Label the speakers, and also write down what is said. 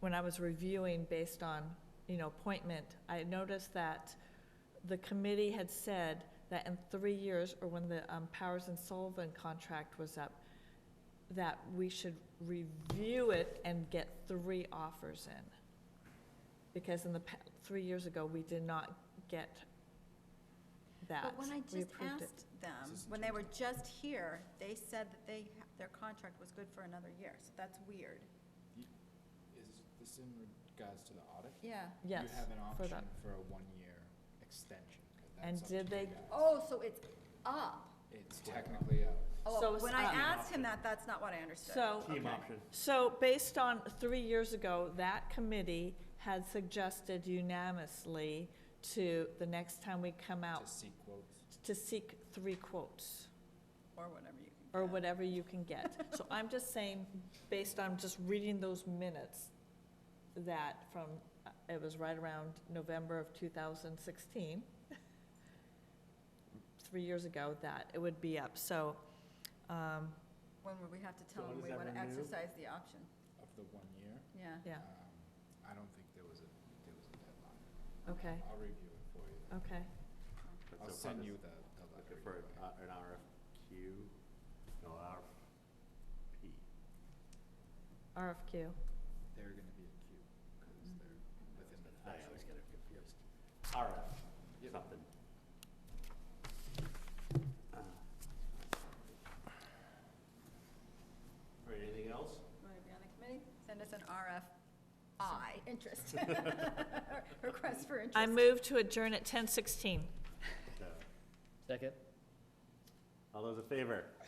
Speaker 1: when I was reviewing based on, you know, appointment, I noticed that the committee had said that in three years, or when the um, Powers and Sullivan contract was up, that we should review it and get three offers in. Because in the, pa- three years ago, we did not get that.
Speaker 2: But when I
Speaker 1: We
Speaker 2: just
Speaker 1: approved it.
Speaker 2: asked them, when they were just here, they said that they, ha- their contract was good for another year, so that's weird.
Speaker 3: Is this in regards to the audit?
Speaker 2: Yeah.
Speaker 1: Yes,
Speaker 3: You have an
Speaker 1: for
Speaker 3: option
Speaker 1: that.
Speaker 3: for a one-year extension. 'cause
Speaker 1: And
Speaker 3: that's up
Speaker 1: did
Speaker 3: to
Speaker 1: they-
Speaker 3: you guys.
Speaker 2: Oh, so it's up.
Speaker 3: It's technically a,
Speaker 1: So
Speaker 2: Oh,
Speaker 1: it's
Speaker 2: when I
Speaker 1: up.
Speaker 2: asked him that, that's not what I understood.
Speaker 1: So,
Speaker 4: Team option.
Speaker 1: So based on three years ago, that committee had suggested unanimously to, the next time we come out,
Speaker 3: to seek quotes.
Speaker 1: to seek three quotes
Speaker 2: Or whatever you can.
Speaker 1: or
Speaker 2: get.
Speaker 1: whatever you can get. So I'm just saying, based on just reading those minutes, that from, uh, it was right around November of 2016, three years ago, that it would be up. So, um,
Speaker 2: When would we have to tell
Speaker 4: So
Speaker 2: them we
Speaker 4: does that
Speaker 2: want to
Speaker 4: renew?
Speaker 2: exercise the option?
Speaker 3: Of the one year?
Speaker 2: Yeah.
Speaker 1: yeah,
Speaker 3: Um, I don't think there was a, there was a deadline.
Speaker 1: okay,
Speaker 3: I'll review it for you.
Speaker 1: okay.
Speaker 4: But
Speaker 3: I'll
Speaker 4: so far
Speaker 3: send
Speaker 4: this-
Speaker 3: you the, the letter.
Speaker 4: Looking for
Speaker 3: either way.
Speaker 4: an uh, an RFQ, no, RFP.
Speaker 1: RFQ.
Speaker 3: They're gonna be a queue, because
Speaker 2: Mhm.
Speaker 3: they're within the.
Speaker 4: I always
Speaker 3: threshold.
Speaker 4: get it confused. RF,
Speaker 3: Yep.
Speaker 4: something. All right, anything else?
Speaker 2: Want to be on the committee? Send us an RFI, interest. Request for interest.
Speaker 1: I move to adjourn at 10:16.
Speaker 4: So,
Speaker 5: Second?
Speaker 4: All those in favor?